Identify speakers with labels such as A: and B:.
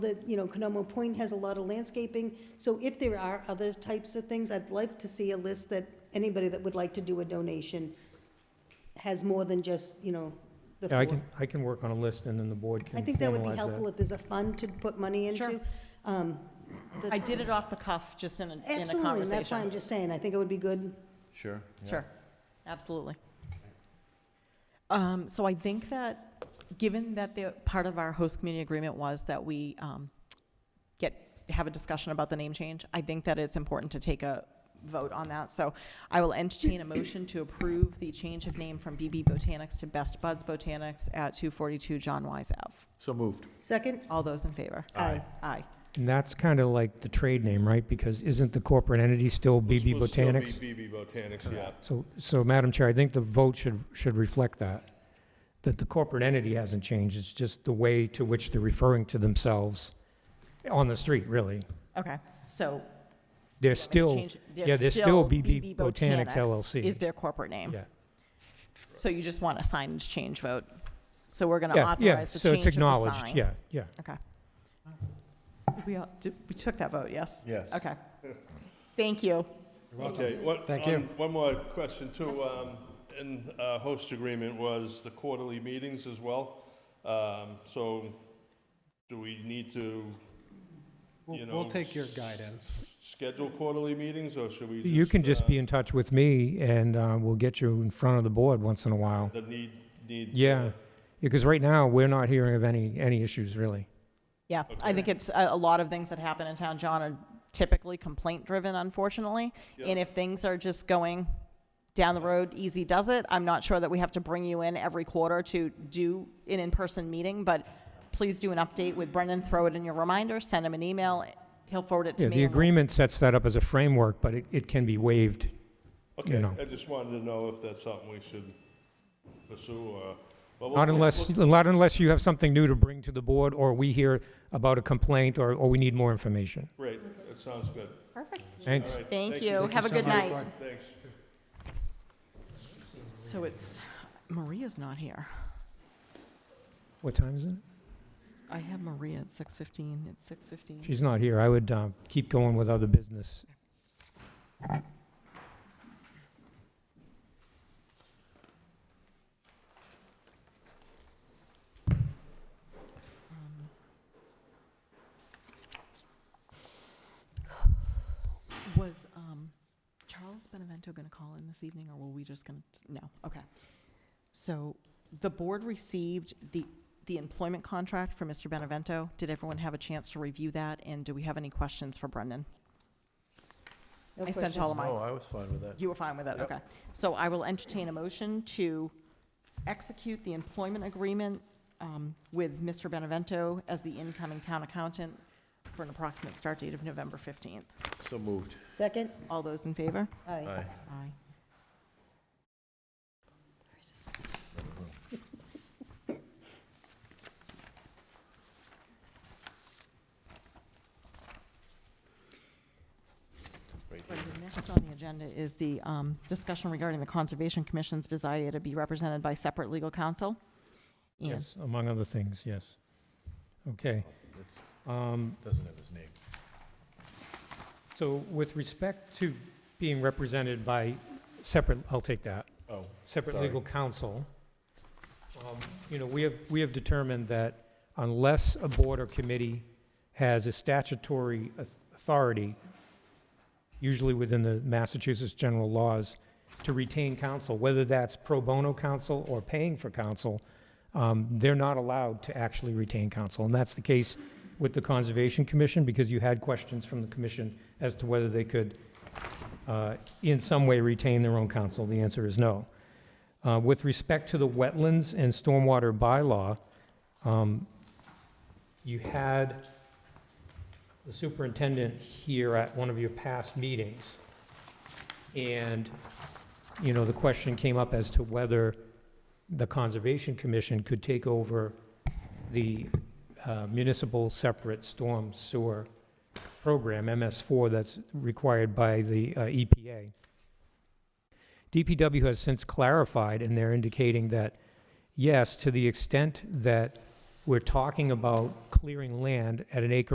A: that, you know, Canomo Point has a lot of landscaping, so if there are other types of things, I'd like to see a list that anybody that would like to do a donation has more than just, you know, the
B: Yeah, I
A: four.
B: can, I can work on a list and then the board can
A: I think that would be
B: formalize
A: helpful if there's a fund to put money into.
C: Sure. I did it off the cuff, just in a, in a
A: Absolutely, and that's why I'm
C: conversation.
A: just saying, I think it would be good.
D: Sure. yeah.
C: Sure, absolutely. Um, so I think that, given that the, part of our host community agreement was that we, um, get, have a discussion about the name change, I think that it's important to take a vote on that. So I will entertain a motion to approve the change of name from BB Botanics to Best Buds Botanics at 242 John Wise Ave.
D: So moved.
A: Second?
C: All those in favor?
A: Aye.
C: Aye.
B: And that's kind of like the trade name, right? Because isn't the corporate entity still BB
E: Will still be
B: Botanics?
E: BB Botanics, yeah.
B: So, so Madam Chair, I think the vote should, should reflect that, that the corporate entity hasn't changed, it's just the way to which they're referring to themselves on the street, really.
C: Okay, so
B: They're still,
C: Change-
B: yeah, they're still BB Botanics
C: Is
B: LLC.
C: their corporate name.
B: Yeah,
C: So you just want a signage change vote. So we're going to
B: yeah, yeah,
C: authorize the
B: so
C: change
B: it's
C: of the
B: acknowledged,
C: sign.
B: yeah, yeah.
C: Okay. Did we, all- did, we took that vote, yes?
D: Yes.
C: Okay. Thank you.
E: Okay, what,
F: Thank you.
E: on- one more question too, um, in, uh, host agreement was the quarterly meetings as well. Um, so do we need to, you
F: We'll,
E: know?
F: we'll take your
E: s-
F: guidance.
E: Schedule quarterly meetings or should we just?
B: You can just
E: uh,
B: be in touch with me and uh, we'll get you in front of the board once in a while.
E: The need, need. uh,
B: Yeah, because right now, we're not hearing of any, any issues, really.
C: Yeah, I think it's a, a lot of things that happen in town, John, are typically complaint-driven, unfortunately. And if things are just going down the road, easy does it, I'm not sure that we have to bring you in every quarter to do an in-person meeting, but please do an update with Brendan, throw it in your reminder, send him an email, he'll forward it to
B: Yeah,
C: me.
B: the
C: and we'll-
B: agreement sets that up as a framework, but it, it can be waived. you
E: Okay,
B: know.
E: I just wanted to know if that's something we should pursue or. but we'll-
B: Not unless,
E: we'll-
B: not unless you have something new to bring to the board, or we hear about a complaint, or, or we need more information.
E: Great, that sounds good.
C: Perfect.
E: All
B: Thanks.
E: right,
C: Thank you, have a good night.
E: Thanks.
C: So it's, Maria's not here.
B: What time is it?
C: I have Maria at 6:15, it's 6:15.
B: She's not here. I would, uh, keep going with other business.
C: Um, Was um, Charles Benevento going to call in this evening, or were we just going to, no, okay. So the board received the, the employment contract for Mr. Benevento. Did everyone have a chance to review that, and do we have any questions for Brendan?
A: No
C: I sent
A: questions.
C: all of mine.
D: No, Oh, I was fine with that.
C: You were fine with that, okay. So I will entertain a motion to execute the employment agreement um, with Mr. Benevento as the incoming town accountant for an approximate start date of November 15th.
D: So moved.
A: Second?
C: All those in favor?
A: Aye.
D: Aye.
C: Aye.
D: Right here.
C: Right, the Next on the agenda is the um, discussion regarding the Conservation Commission's desire to be represented by separate legal counsel. And-
B: Yes, among other things, yes. Okay.
D: It's-
B: Um,
D: Doesn't have his name.
B: so with respect to being represented by separate, I'll take that.
D: Oh,
B: separate
D: Sorry.
B: legal counsel, um, you know, we have, we have determined that unless a board or committee has a statutory auth- authority, usually within the Massachusetts general laws, to retain counsel, whether that's pro bono counsel or paying for counsel, um, they're not allowed to actually retain counsel. And that's the case with the Conservation Commission, because you had questions from the commission as to whether they could, uh, in some way, retain their own counsel. The answer is no. Uh, With respect to the wetlands and stormwater bylaw, um, you had the superintendent here at one of your past meetings, and, you know, the question came up as to whether the Conservation Commission could take over the uh, municipal separate storm sewer program, MS4, that's required by the uh, EPA. DPW has since clarified, and they're indicating that, yes, to the extent that we're talking about clearing land at an acre